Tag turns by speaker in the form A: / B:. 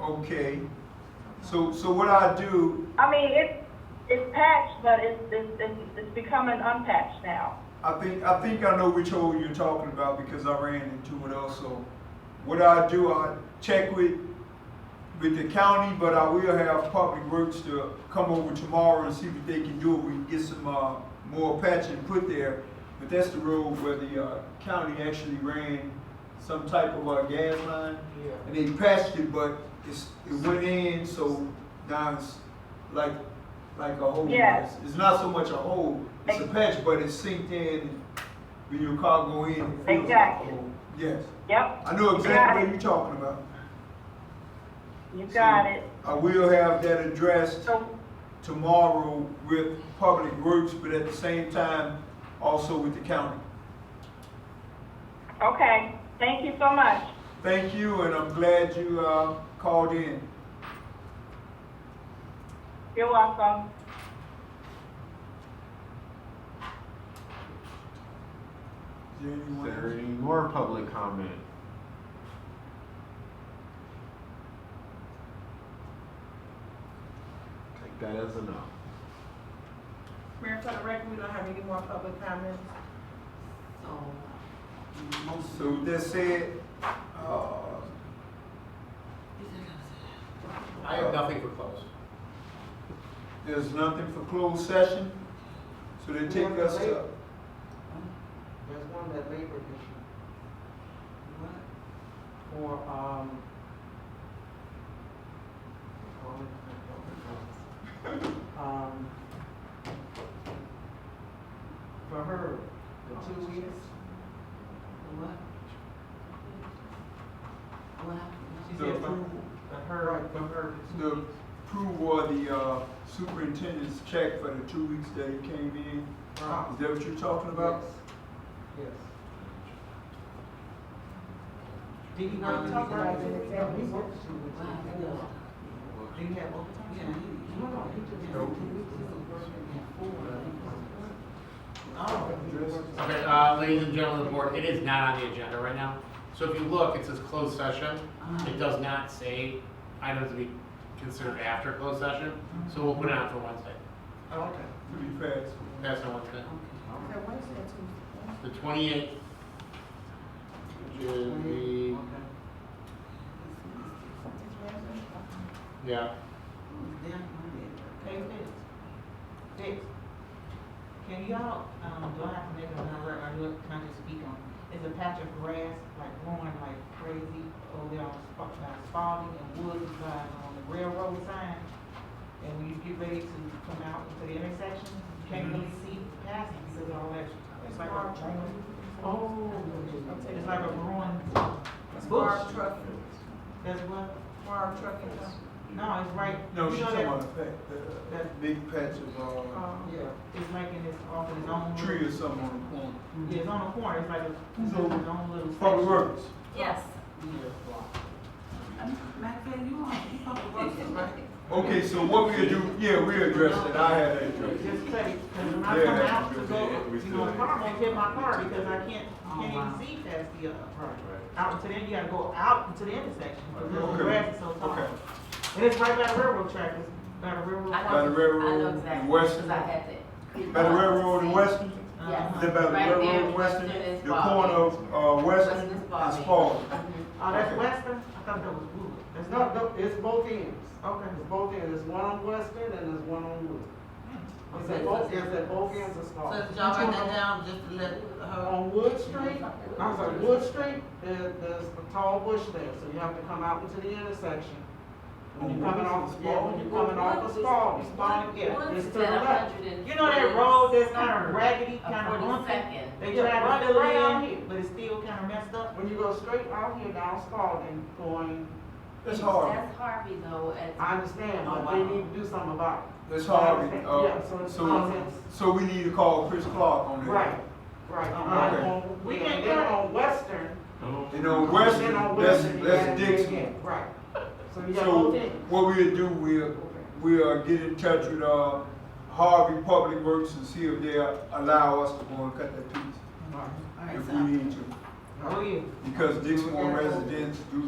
A: Okay, so, so what I do,
B: I mean, it's, it's patched, but it's, it's, it's, it's becoming unpatched now.
A: I think, I think I know which hole you're talking about because I ran into it also. What I do, I check with, with the county, but I will have Public Works to come over tomorrow and see what they can do. We can get some, uh, more patching put there. But that's the road where the, uh, county actually ran some type of, uh, gas line.
C: Yeah.
A: And they patched it, but it's, it went in, so now it's like, like a hole.
B: Yeah.
A: It's- It's not so much a hole, it's a patch, but it's sinked in, when your car go in, it feels like a
B: Exactly.
A: hole. Yes,
B: Yep,
A: I know
B: Got
A: exactly
B: it.
A: what you're talking about.
B: you got it.
A: I will have that addressed
B: So,
A: tomorrow with Public Works, but at the same time, also with the county.
B: okay, thank you so much.
A: Thank you, and I'm glad you, uh, called in.
B: You're welcome.
A: Is there anyone
C: Is there
A: else?
C: any more public comment? Take that as a no.
D: Mayor, for the record, we don't have any more public comments.
A: So with that said, uh,
E: I have nothing for close.
A: There's nothing for closed session, so they take us to,
F: There's one that labor issue. What? For, um. Um. For her, the two weeks. What? What happened?
A: The-
F: Her, for her, the two
A: the
F: weeks.
A: approval of the uh, superintendent's check for the two weeks that he came in.
F: Right.
A: Is that what you're talking about?
F: Yes.
D: Did he
F: Not
D: not talk about
F: it,
D: it?
F: Um, we worked two weeks. Did he have overtime? No, no, he just.
A: Nope.
E: Okay, uh, ladies and gentlemen of the board, it is not on the agenda right now. So if you look, it says closed session. It does not say items to be considered after closed session, so we'll put it on for Wednesday.
F: Oh, Okay.
A: To be fast.
E: That's on Wednesday.
D: Okay, what's that to?
E: The twenty-eighth, which is the,
D: It's Wednesday?
E: yeah,
F: Hey, Fitz. Fitz, can y'all, um, do I have to make another, or look, can I just speak on, is a patch of grass like growing like crazy over there on Spa- by Spalding and Woods by, on the railroad sign? And when you get ready to come out into the intersection, you can't
A: Mm-hmm.
F: really see past it because of all that, it's like a growing. Oh. It's like a growing
D: It's
F: bush.
D: Barb Trucking,
F: That's what,
D: Barb Trucking. huh?
F: no, it's right.
A: No,
F: you
A: she's
F: know
A: talking
F: that-
A: about the fact, the
F: that-
A: big patch of uh,
D: Um,
F: Yeah, it's like in this, off in his own.
A: tree or something on the corner.
F: Yeah, it's on the corner, it's like a,
A: It's
F: it's
A: over.
F: his own little section.
A: Public Works,
G: Yes.
D: Maxine, you want, you want to right?
A: okay, so what we'll do, yeah, we address it, I had that addressed.
F: Just say, cause when I
A: Yeah,
F: come
A: that's
F: out to
A: good.
F: go,
A: Yeah, we
F: you know,
A: still-
F: if I'm gonna hit my car because I can't,
G: Oh, wow.
F: can't even see past the, uh, out to then you gotta go out into the intersection, cause the
A: Okay.
F: grass is so tall.
A: Okay.
F: And it's right by the railroad track, it's by the railroad.
G: I know-
A: By the railroad
G: I know
A: and
G: exactly,
A: Western.
G: 'cause I had that.
A: By the railroad and Western,
G: Yes.
A: is that by the
G: Right
A: railroad
G: there,
A: and Western,
G: is
A: the
G: Bobby.
A: corner of, uh, Western
G: Western is
A: and
G: Bobby.
A: Spalding.
F: Oh, that's
A: Okay.
F: Western? I thought that was Wood. That's
H: No,
F: not,
H: no, it's both ends.
F: okay.
H: It's both ends. There's one on Western and there's one on Wood. It's
F: Okay.
H: at both, it's at both ends of
D: So
H: Spalding.
D: did y'all write that down just to let her,
H: On Wood Street, I'm sorry, Wood Street, there, there's a tall bush there, so you have to come out into the intersection. When you're coming off, yeah, when you're coming off of Spalding, Spalding, yeah,
G: Woods
H: it's
G: is
H: to the
G: at
H: left.
G: 100 and
F: You know that road that's kinda raggedy,
G: A
F: kinda bumpy?
G: 42nd.
F: They tried to lay on it, but it's still kinda messed up.
H: When you go straight out here down Spalding, going,
A: It's hard.
G: That's Harvey though, at.
H: I understand, but they need to do something about
A: That's hard,
H: Yeah, so
A: uh,
H: it's
A: so,
H: nonsense.
A: so we need to call Chris Clark on
H: it.
A: that.
H: Right, right.
A: Okay.
H: And on-
F: Uh-huh. We can't
H: and
F: get
H: then
F: it.
H: on Western,
A: And on
H: Then on
A: Western, that's,
H: Western, you
A: that's
H: gotta do it again.
A: Dixon.
H: Right. So you got
A: So
H: both ends.
A: what we'll do, we'll, we'll get in touch with, uh, Harvey Public Works and see if they'll allow us to go and cut that piece.
D: all right,
A: If
D: so.
A: we need to,
F: Oh, yeah.
A: because Dixmoor residents do